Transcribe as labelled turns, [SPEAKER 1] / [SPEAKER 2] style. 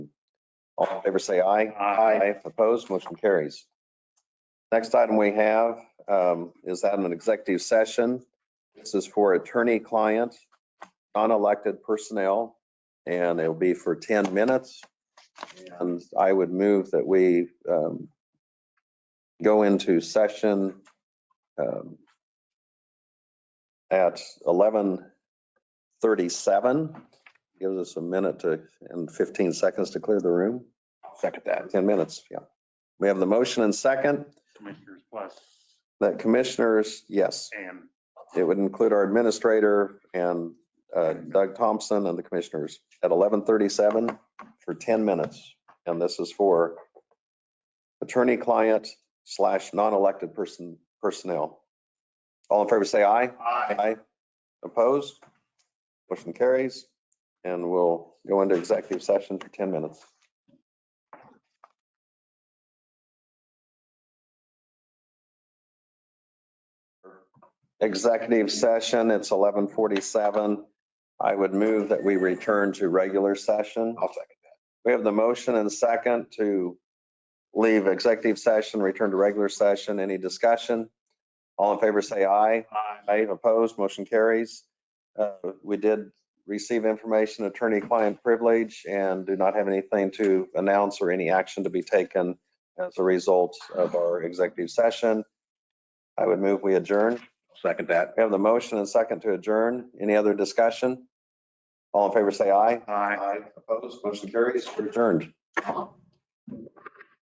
[SPEAKER 1] All in favor, say aye.
[SPEAKER 2] Aye.
[SPEAKER 1] Opposed, motion carries. Next item we have um, is out of an executive session. This is for attorney-client, non-elected personnel, and it'll be for 10 minutes. And I would move that we um, go into session um, at 11:37. Gives us a minute to, and 15 seconds to clear the room.
[SPEAKER 2] Second that.
[SPEAKER 1] 10 minutes, yeah. We have the motion and second
[SPEAKER 2] Commissioners Plus
[SPEAKER 1] that commissioners, yes,
[SPEAKER 2] and
[SPEAKER 1] it would include our administrator and uh, Doug Thompson and the commissioners at 11:37 for 10 minutes. And this is for attorney-client slash non-elected person, personnel. All in favor, say aye. Aye. Opposed? Motion carries. And we'll go into executive session for 10 minutes. Executive session, it's 11:47. I would move that we return to regular session.
[SPEAKER 2] I'll second
[SPEAKER 1] We have the motion and second to leave executive session, return to regular session. Any discussion? All in favor, say aye.
[SPEAKER 2] that.
[SPEAKER 1] Aye, opposed, motion carries. Uh, We did receive information, attorney-client privilege, and do not have anything to announce or any action to be taken as a result of our executive session. I would move we adjourn.
[SPEAKER 2] Second that.
[SPEAKER 1] We have the motion and second to adjourn. Any other discussion? All in favor, say aye.
[SPEAKER 2] Aye.
[SPEAKER 1] Opposed, motion carries, We're adjourned.